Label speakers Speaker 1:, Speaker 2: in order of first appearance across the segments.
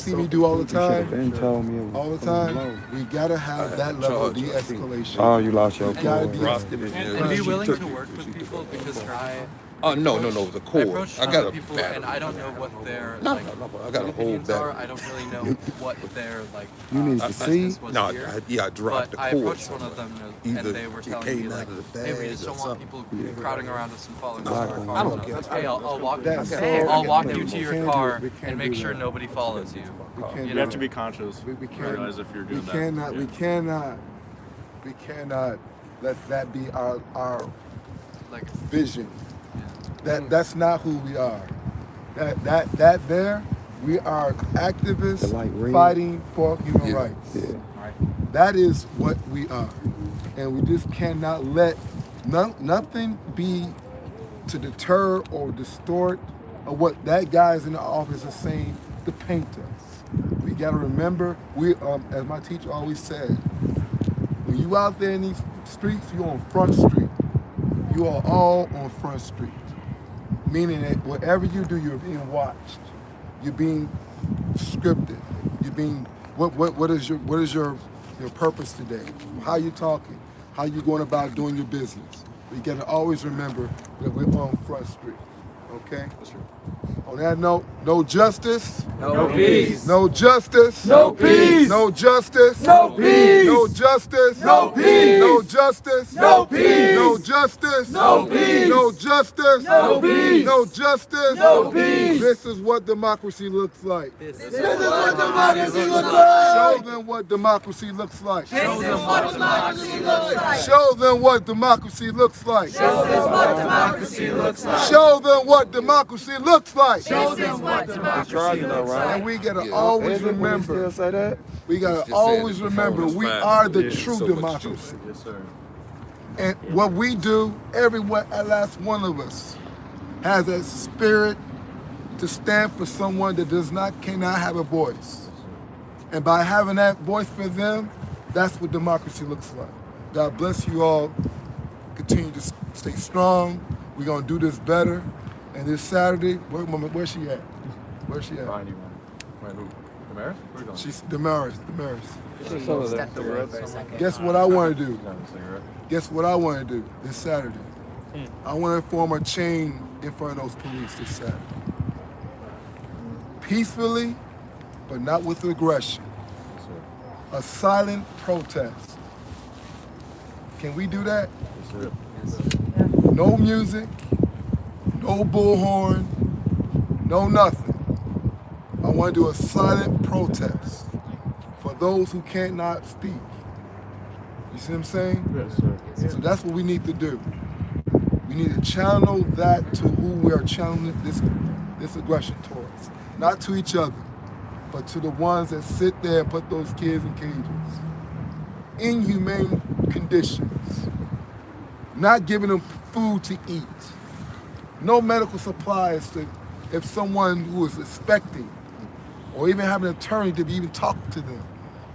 Speaker 1: see me do all the time,
Speaker 2: should've been told me it was
Speaker 1: all the
Speaker 2: fucking low.
Speaker 1: time, we gotta have that level of de-escalation.
Speaker 2: Oh, you lost your
Speaker 1: We gotta
Speaker 2: cool.
Speaker 1: de-escalate.
Speaker 3: Frosted it
Speaker 4: And,
Speaker 3: is.
Speaker 4: and be
Speaker 1: She
Speaker 4: willing
Speaker 1: took
Speaker 4: to work with people because her, I,
Speaker 3: Oh no, no, no, the
Speaker 4: I
Speaker 3: core.
Speaker 4: approach
Speaker 3: I
Speaker 4: tons
Speaker 3: got
Speaker 4: of
Speaker 3: a
Speaker 4: people and
Speaker 3: battery.
Speaker 4: I don't know what their
Speaker 3: No,
Speaker 4: like
Speaker 3: no, no, I got a whole
Speaker 4: opinions are.
Speaker 3: battery.
Speaker 4: I don't really know what their like.
Speaker 2: You
Speaker 4: uh,
Speaker 2: need to
Speaker 4: business
Speaker 2: see.
Speaker 4: was
Speaker 3: No,
Speaker 4: here.
Speaker 3: I, yeah, I dropped
Speaker 4: But
Speaker 3: the
Speaker 4: I
Speaker 3: cord.
Speaker 4: approached one of them and
Speaker 3: Either
Speaker 4: they were
Speaker 3: it
Speaker 4: telling
Speaker 3: came
Speaker 4: me
Speaker 3: out
Speaker 4: like,
Speaker 3: of the
Speaker 4: hey, we
Speaker 3: bag
Speaker 4: just
Speaker 3: or
Speaker 4: don't want
Speaker 3: something."
Speaker 4: people crowding around us and following us to our
Speaker 2: I
Speaker 4: cars.
Speaker 2: don't
Speaker 4: And I
Speaker 1: get
Speaker 4: was
Speaker 1: it.
Speaker 4: like, hey, I'll, I'll walk.
Speaker 1: That's all.
Speaker 4: I'll walk
Speaker 1: We
Speaker 4: you to your
Speaker 1: can't do-
Speaker 4: car
Speaker 1: we can't
Speaker 4: and make
Speaker 1: do
Speaker 4: sure
Speaker 1: that.
Speaker 4: nobody follows you.
Speaker 1: We can't
Speaker 4: You
Speaker 1: do
Speaker 5: You have to
Speaker 1: that.
Speaker 5: be conscious.
Speaker 1: We, we can't.
Speaker 5: realize if you're doing
Speaker 1: we
Speaker 5: that.
Speaker 1: cannot. We
Speaker 5: Yeah.
Speaker 1: cannot. We cannot let that be our our
Speaker 4: Like,
Speaker 1: vision. That that's not who we are. That that that there, we are
Speaker 2: The light
Speaker 1: activists
Speaker 2: red.
Speaker 1: fighting for human
Speaker 3: Yeah.
Speaker 1: rights.
Speaker 2: Yeah.
Speaker 1: That is what we are, and we just cannot let no, nothing be to deter or distort or what that guy's in the office is saying to paint us. We gotta remember, we um, as my teacher always said, when you out there in these streets, you on Front Street. You are all on Front Street, meaning that whatever you do, you're being watched. You're being scripted. You're being what what what is your what is your your purpose today? How you talking? How you going about doing your business? We gotta always remember that we're on Front Street. Okay. On that note, no justice.
Speaker 6: No peace.
Speaker 1: No justice.
Speaker 6: No peace.
Speaker 1: No justice.
Speaker 6: No peace.
Speaker 1: No justice.
Speaker 6: No peace.
Speaker 1: No justice.
Speaker 6: No peace.
Speaker 1: No justice.
Speaker 6: No peace.
Speaker 1: No justice.
Speaker 6: No peace.
Speaker 1: No justice.
Speaker 6: No peace.
Speaker 1: This is what democracy looks like.
Speaker 6: This is what democracy looks like.
Speaker 1: Show them what democracy looks like.
Speaker 6: This is what democracy looks like.
Speaker 1: Show them what democracy looks like.
Speaker 6: This is what democracy looks like.
Speaker 1: Show them what democracy looks like.
Speaker 6: This is what democracy looks like.
Speaker 1: And we gotta
Speaker 3: Yeah.
Speaker 1: always
Speaker 2: Isn't it when you Still
Speaker 1: remember,
Speaker 2: say that?
Speaker 1: we
Speaker 3: It's
Speaker 1: gotta
Speaker 3: just saying
Speaker 1: always
Speaker 3: that the
Speaker 1: remember,
Speaker 3: phone is
Speaker 1: we
Speaker 3: fine.
Speaker 1: are the
Speaker 3: There's
Speaker 1: true
Speaker 3: so much
Speaker 1: democracy.
Speaker 5: Yes, sir.
Speaker 1: And what we do, every one, at last one of us, has that spirit to stand for someone that does not, cannot have a voice. And by having that voice for them, that's what democracy looks like. God bless you all. Continue to s- stay strong. We're gonna do this better. And this Saturday, where, mama- where's she at? Where's she at?
Speaker 5: Behind you, man. Wait, who? Damaris? Where you going?
Speaker 1: She's Damaris. Damaris.
Speaker 6: Step away for a second.
Speaker 1: Guess what I want to do?
Speaker 5: She's having a cigarette.
Speaker 1: Guess what I want to do this Saturday?
Speaker 5: Hmm.
Speaker 1: I want to form a chain in front of those police this Saturday. Peacefully, but not with aggression.
Speaker 5: Yes, sir.
Speaker 1: A silent protest. Can we do that?
Speaker 5: Yes, sir.
Speaker 1: No music, no bullhorn, no nothing. I want to do a silent protest for those who cannot speak. You see what I'm saying?
Speaker 5: Yes, sir.
Speaker 1: So that's what we need to do. We need to channel that to who we are channeling this this aggression towards. Not to each other, but to the ones that sit there and put those kids in cages. Inhumane conditions. Not giving them food to eat. No medical supplies to if someone who is expecting or even having an attorney to even talk to them.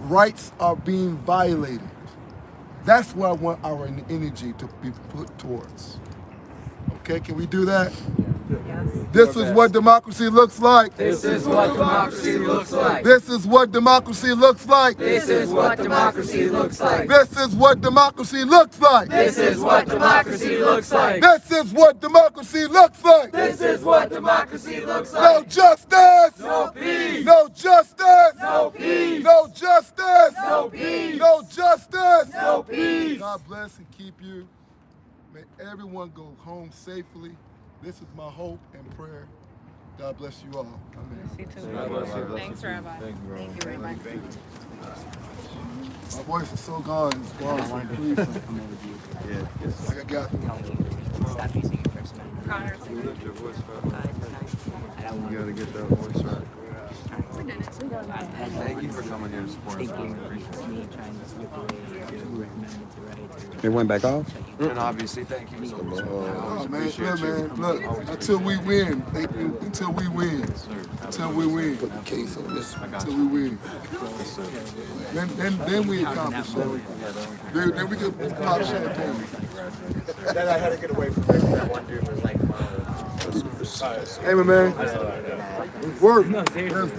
Speaker 1: Rights are being violated. That's where I want our en- energy to be put towards. Okay, can we do that? This is what democracy looks like.
Speaker 6: This is what democracy looks like.
Speaker 1: This is what democracy looks like.
Speaker 6: This is what democracy looks like.
Speaker 1: This is what democracy looks like.
Speaker 6: This is what democracy looks like.
Speaker 1: This is what democracy looks like.
Speaker 6: This is what democracy looks
Speaker 1: No
Speaker 6: like.
Speaker 1: justice.
Speaker 6: No peace.
Speaker 1: No justice.
Speaker 6: No peace.
Speaker 1: No justice.
Speaker 6: No peace.
Speaker 1: No justice.
Speaker 6: No peace.
Speaker 1: God bless and keep you. May everyone go home safely. This is my hope and prayer. God bless you all. Amen.
Speaker 7: Thanks, Rabbi. Thank you, Rabbi.
Speaker 1: My voice is so gone. It's gone. So please, like I got.
Speaker 8: Stop using your first name.
Speaker 7: Connor,
Speaker 8: I just- I don't want
Speaker 3: You
Speaker 8: to.
Speaker 3: gotta get that voice right.
Speaker 7: we're done.
Speaker 3: Thank you for coming here to support
Speaker 8: Thank you for me trying to slip away to remember the right.
Speaker 2: It went back off.
Speaker 3: And obviously, thank you so much.
Speaker 1: Oh man, look, man, look. Until we win, thank you. Until we win, until we win. Put the case on this. Until we win. Then, then, then we accomplish something. Then, then we can pop champagne.
Speaker 9: Then I had to get away from there. That one dude was like,
Speaker 1: Hey, my man. It's work. It's